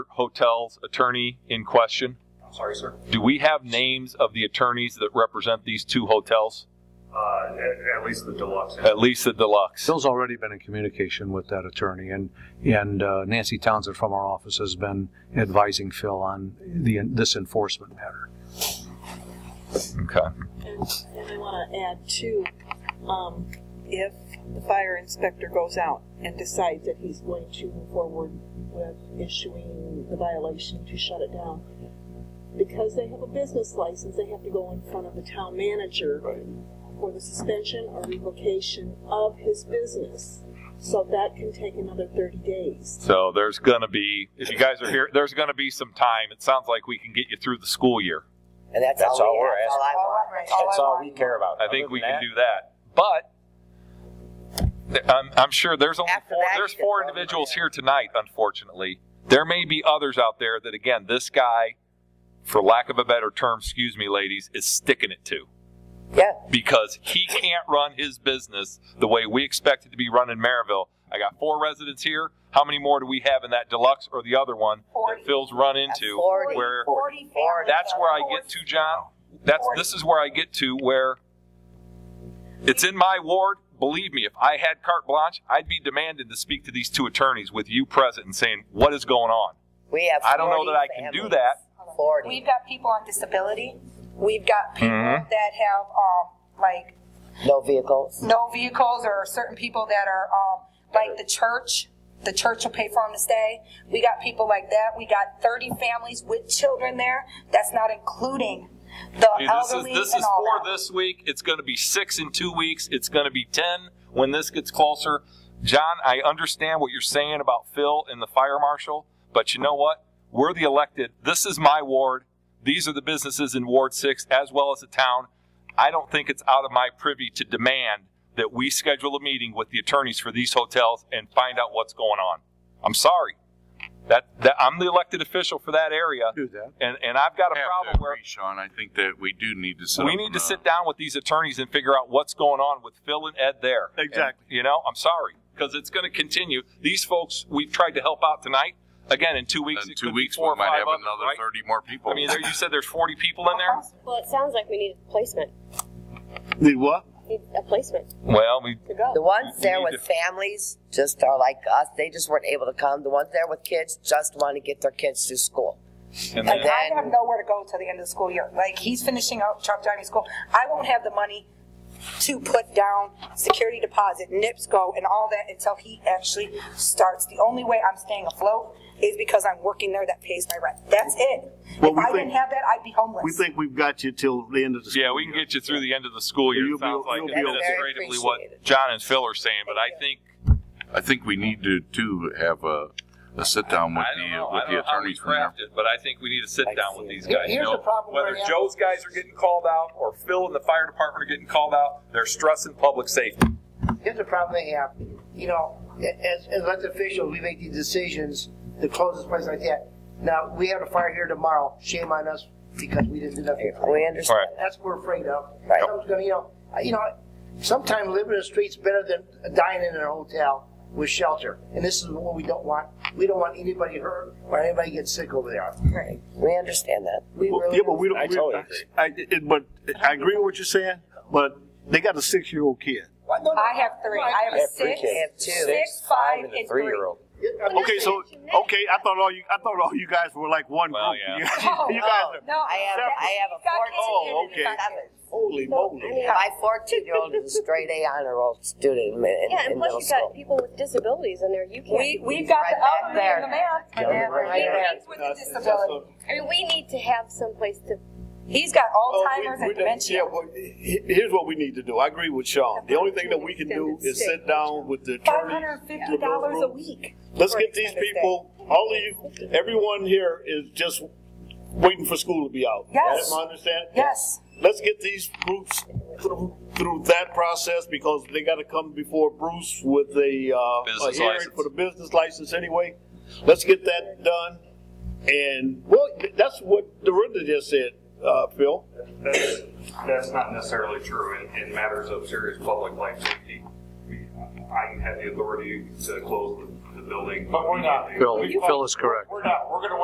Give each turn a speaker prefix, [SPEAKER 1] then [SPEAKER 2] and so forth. [SPEAKER 1] Hotel's attorney in question?
[SPEAKER 2] I'm sorry, sir.
[SPEAKER 1] Do we have names of the attorneys that represent these two hotels?
[SPEAKER 2] Uh, at, at least the deluxe.
[SPEAKER 1] At least the deluxe.
[SPEAKER 3] Phil's already been in communication with that attorney, and, and uh, Nancy Townsend from our office has been advising Phil on the, this enforcement matter.
[SPEAKER 1] Okay.
[SPEAKER 4] And, and I want to add too, um, if the fire inspector goes out and decides that he's going to move forward with issuing the violation to shut it down, because they have a business license, they have to go in front of the town manager for the suspension or revocation of his business. So that can take another thirty days.
[SPEAKER 1] So there's going to be, if you guys are here, there's going to be some time. It sounds like we can get you through the school year.
[SPEAKER 5] And that's,
[SPEAKER 6] That's
[SPEAKER 5] all,
[SPEAKER 6] all
[SPEAKER 5] we,
[SPEAKER 6] we're
[SPEAKER 5] that's all I want.
[SPEAKER 6] That's all we care about.
[SPEAKER 1] I think
[SPEAKER 6] Other
[SPEAKER 1] we
[SPEAKER 6] than
[SPEAKER 1] can
[SPEAKER 6] that,
[SPEAKER 1] do that. But th- I'm, I'm sure there's only
[SPEAKER 5] After
[SPEAKER 1] four,
[SPEAKER 5] that,
[SPEAKER 1] there's
[SPEAKER 5] you can
[SPEAKER 1] four
[SPEAKER 5] throw them
[SPEAKER 1] individuals
[SPEAKER 5] out.
[SPEAKER 1] here tonight, unfortunately. There may be others out there that, again, this guy, for lack of a better term, excuse me, ladies, is sticking it to
[SPEAKER 5] Yeah.
[SPEAKER 1] because he can't run his business the way we expect it to be run in Maryville. I got four residents here. How many more do we have in that deluxe or the other one
[SPEAKER 7] Forty.
[SPEAKER 1] that Phil's run
[SPEAKER 5] That's
[SPEAKER 1] into?
[SPEAKER 5] forty.
[SPEAKER 1] Where
[SPEAKER 7] Forty families.
[SPEAKER 1] that's where I
[SPEAKER 7] Forty.
[SPEAKER 1] get to, John. That's this is where I get to where it's in my ward. Believe me, if I had carte blanche, I'd be demanding to speak to these two attorneys with you present and saying what is going on.
[SPEAKER 5] We have.
[SPEAKER 1] I don't know
[SPEAKER 5] 40
[SPEAKER 1] that I can do
[SPEAKER 5] families.
[SPEAKER 1] that.
[SPEAKER 5] Forty.
[SPEAKER 7] We've got people on disability. We've got people
[SPEAKER 1] Mhm.
[SPEAKER 7] that have, um, like,
[SPEAKER 5] no vehicles.
[SPEAKER 7] no vehicles or certain people that are, um, like the church. The church will pay for them to stay. We got people like that. We got 30 families with children there. That's not including the
[SPEAKER 1] Hey, this is
[SPEAKER 7] elderly
[SPEAKER 1] this
[SPEAKER 7] and
[SPEAKER 1] is
[SPEAKER 7] all
[SPEAKER 1] for
[SPEAKER 7] that.
[SPEAKER 1] this week. It's going to be six in two weeks. It's going to be ten when this gets closer. John, I understand what you're saying about Phil and the fire marshal, but you know what? We're the elected. This is my ward. These are the businesses in Ward Six as well as the town. I don't think it's out of my privy to demand that we schedule a meeting with the attorneys for these hotels and find out what's going on. I'm sorry. That, that I'm the elected official for that area,
[SPEAKER 3] Do that.
[SPEAKER 1] and, and I've got a
[SPEAKER 8] have
[SPEAKER 1] problem
[SPEAKER 8] to
[SPEAKER 1] where
[SPEAKER 8] agree, Sean, I think that we do need to sit
[SPEAKER 1] we
[SPEAKER 8] up
[SPEAKER 1] need
[SPEAKER 8] and,
[SPEAKER 1] to
[SPEAKER 8] uh,
[SPEAKER 1] sit down with these attorneys and figure out what's going on with Phil and Ed there.
[SPEAKER 9] Exactly.
[SPEAKER 1] And, you know, I'm sorry because it's going to continue. These folks, we've tried to help out tonight. Again, in two weeks,
[SPEAKER 8] In
[SPEAKER 1] it
[SPEAKER 8] two
[SPEAKER 1] could
[SPEAKER 8] weeks,
[SPEAKER 1] be four
[SPEAKER 8] we
[SPEAKER 1] or
[SPEAKER 8] might
[SPEAKER 1] five
[SPEAKER 8] have
[SPEAKER 1] others,
[SPEAKER 8] another
[SPEAKER 1] right?
[SPEAKER 8] 30 more people.
[SPEAKER 1] I mean, there, you said there's 40 people in there.
[SPEAKER 10] Well, it sounds like we need a placement.
[SPEAKER 9] Need what?
[SPEAKER 10] Need a placement
[SPEAKER 1] Well, we
[SPEAKER 10] to go.
[SPEAKER 5] The ones
[SPEAKER 1] We
[SPEAKER 5] there
[SPEAKER 1] need
[SPEAKER 5] with
[SPEAKER 1] to-
[SPEAKER 5] families just are like us. They just weren't able to come. The ones there with kids just want to get their kids to school.
[SPEAKER 1] and then,
[SPEAKER 5] Like
[SPEAKER 7] Like, I
[SPEAKER 5] then-
[SPEAKER 7] have nowhere to go till the end of the school year. Like, he's finishing out truck driving school. I won't have the money to put down security deposit, NIPSCO, and all that until he actually starts. The only way I'm staying afloat is because I'm working there that pays my rent. That's it.
[SPEAKER 9] Well,
[SPEAKER 7] If
[SPEAKER 9] we
[SPEAKER 7] I
[SPEAKER 9] think-
[SPEAKER 7] didn't have that, I'd be homeless.
[SPEAKER 9] We think we've got you till the end of the.
[SPEAKER 1] yeah, we can get you through the end of the school year.
[SPEAKER 9] You'll
[SPEAKER 1] It
[SPEAKER 9] be-
[SPEAKER 1] sounds like
[SPEAKER 9] you'll be okay.
[SPEAKER 1] administratively what
[SPEAKER 5] Very appreciated.
[SPEAKER 1] John and Phil are saying, but I think
[SPEAKER 8] I think we need to, to have a, a sit down with
[SPEAKER 1] I don't
[SPEAKER 8] the,
[SPEAKER 1] know.
[SPEAKER 8] uh, with
[SPEAKER 1] I don't
[SPEAKER 8] the
[SPEAKER 1] know how we
[SPEAKER 8] attorneys from there.
[SPEAKER 1] craft it, but I think we need to sit
[SPEAKER 5] I
[SPEAKER 1] down
[SPEAKER 5] see.
[SPEAKER 1] with these
[SPEAKER 5] Here-
[SPEAKER 1] guys. you
[SPEAKER 5] here's
[SPEAKER 1] know?
[SPEAKER 5] the problem
[SPEAKER 1] Whether
[SPEAKER 5] we're at.
[SPEAKER 1] Joe's guys are getting called out or Phil and the fire department are getting called out, they're stressing public safety.
[SPEAKER 11] Here's the problem they have, you know, as, as elected officials, we make these decisions to close this place like that. Now, we have a fire here tomorrow, shame on us because we didn't do nothing.
[SPEAKER 5] We understand.
[SPEAKER 1] All right.
[SPEAKER 11] That's what we're afraid of.
[SPEAKER 5] Right.
[SPEAKER 11] Something's gonna, you know, I- you know, sometimes living in the street's better than dying in a hotel with shelter. And this is what we don't want. We don't want anybody hurt or anybody get sick over there.
[SPEAKER 5] We understand that.
[SPEAKER 11] We
[SPEAKER 9] Well,
[SPEAKER 11] really.
[SPEAKER 9] Yeah, but we don't.
[SPEAKER 6] I
[SPEAKER 9] we-
[SPEAKER 6] totally agree.
[SPEAKER 9] I, it- but I agree with what you're saying, but they got a six-year-old kid.
[SPEAKER 11] Why- no, no,
[SPEAKER 7] I have three. I have
[SPEAKER 6] I
[SPEAKER 7] a
[SPEAKER 6] have three
[SPEAKER 7] six,
[SPEAKER 5] I have
[SPEAKER 6] kids.
[SPEAKER 5] two.
[SPEAKER 7] six, five,
[SPEAKER 6] and a
[SPEAKER 7] and three.
[SPEAKER 6] three-year-old.
[SPEAKER 11] I'm-
[SPEAKER 9] Okay, so, okay, I thought all you, I thought all you guys were like one
[SPEAKER 1] Well,
[SPEAKER 9] group.
[SPEAKER 1] yeah.
[SPEAKER 9] You
[SPEAKER 7] Oh,
[SPEAKER 9] guys
[SPEAKER 5] oh.
[SPEAKER 9] are,
[SPEAKER 7] No,
[SPEAKER 5] I have, I have a
[SPEAKER 7] he's got kids
[SPEAKER 9] Oh,
[SPEAKER 7] in there.
[SPEAKER 9] okay. holy
[SPEAKER 10] I
[SPEAKER 9] moly.
[SPEAKER 10] mean,
[SPEAKER 5] My 14 year old is a straight A honor roll student in, in,
[SPEAKER 10] yeah, and
[SPEAKER 5] in
[SPEAKER 10] plus
[SPEAKER 5] middle
[SPEAKER 10] you got
[SPEAKER 5] school.
[SPEAKER 10] people with disabilities in there. You can't.
[SPEAKER 7] We, we've got
[SPEAKER 5] Right
[SPEAKER 7] the
[SPEAKER 5] back
[SPEAKER 7] elderly and the man.
[SPEAKER 5] Yeah, right there.
[SPEAKER 7] He's with a disability.
[SPEAKER 10] I mean, we need to have some place to.
[SPEAKER 7] He's got
[SPEAKER 9] Oh, we-
[SPEAKER 7] Alzheimer's
[SPEAKER 9] we-
[SPEAKER 7] and
[SPEAKER 9] Yeah,
[SPEAKER 7] dementia.
[SPEAKER 9] well, he- here's what we need to do. I agree with Sean. The only thing that we can do is sit down with the
[SPEAKER 7] Five
[SPEAKER 9] attorney.
[SPEAKER 7] hundred and fifty dollars a week.
[SPEAKER 9] Let's
[SPEAKER 7] for
[SPEAKER 9] get these
[SPEAKER 7] extended stay.
[SPEAKER 9] people, all of you, everyone here is just waiting for school to be out.
[SPEAKER 7] Yes.
[SPEAKER 9] Am I understanding?
[SPEAKER 7] Yes.
[SPEAKER 9] Let's get these groups through, through that process because they gotta come before Bruce with a, uh, a
[SPEAKER 1] Business
[SPEAKER 9] hearing
[SPEAKER 1] license.
[SPEAKER 9] for the business license anyway. Let's get that done. And, well, that's what Dorinda just said, uh, Phil.
[SPEAKER 2] That's, that's not necessarily true in, in matters of serious public life safety. I mean, I have the authority to close the, the building.
[SPEAKER 9] But we're not.
[SPEAKER 3] Phil, Phil is correct.
[SPEAKER 2] We're not, we're gonna